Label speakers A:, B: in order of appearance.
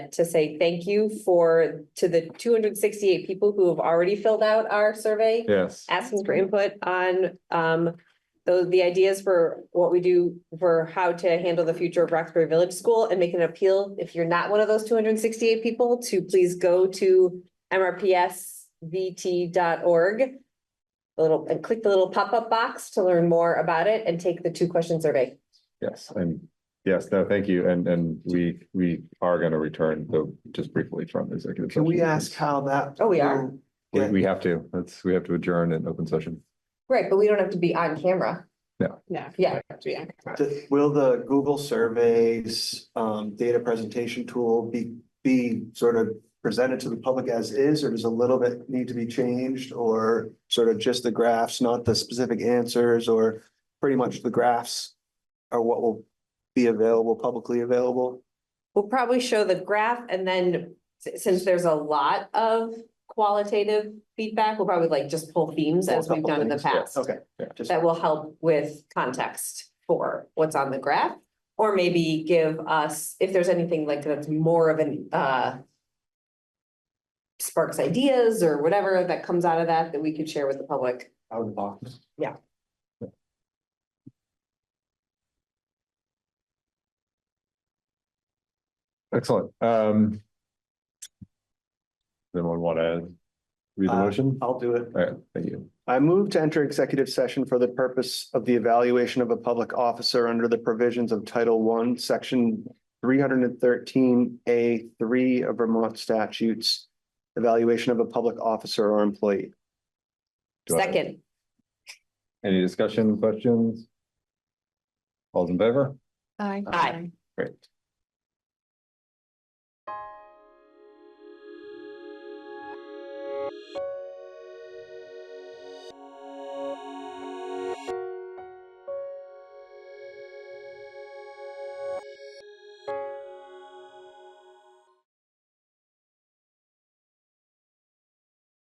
A: to say thank you for, to the two hundred sixty-eight people who have already filled out our survey,
B: Yes.
A: asking for input on, um, those, the ideas for what we do for how to handle the future of Roxbury Village School and make an appeal. If you're not one of those two hundred sixty-eight people, to please go to mrpsvt.org. the Little, and click the little pop-up box to learn more about it and take the two-question survey.
B: Yes, and yes, no, thank you. And, and we, we are going to return though, just briefly from executive.
C: Can we
B: session.
C: ask how that?
A: Oh, we are.
C: will
B: We,
C: get-
B: we have to, that's, we have to adjourn in open session.
A: Right, but we don't have to be on camera.
D: No.
A: Yeah.
D: Yeah.
C: th- Will the Google surveys, um, data presentation tool be, be sort of presented to the public as is, or does a little bit need to be changed? Or sort of just the graphs, not the specific answers, or pretty much the graphs are what will be available, publicly available?
A: We'll probably show the graph and then si- since there's a lot of qualitative feedback, we'll probably like just pull themes as we've done in the past.
C: Okay.
B: Yeah.
C: just-
A: That will help with context for what's on the graph. Or maybe give us, if there's anything like that's more of an uh. Sparks ideas or whatever that comes out of that, that we could share with the public.
C: Out of the box.
B: Excellent. Um. Anyone want to read the
C: Uh,
B: motion? All
C: I'll do it.
B: right, thank you.
C: I move to enter executive session for the purpose of the evaluation of a public officer under the provisions of Title I, Section three hundred and thirteen A three of Vermont statutes. Evaluation of a public officer or employee.
B: Do I-
A: Second,
B: Any discussion, questions? All's in favor?
D: Aye.
A: Aye.
B: Great.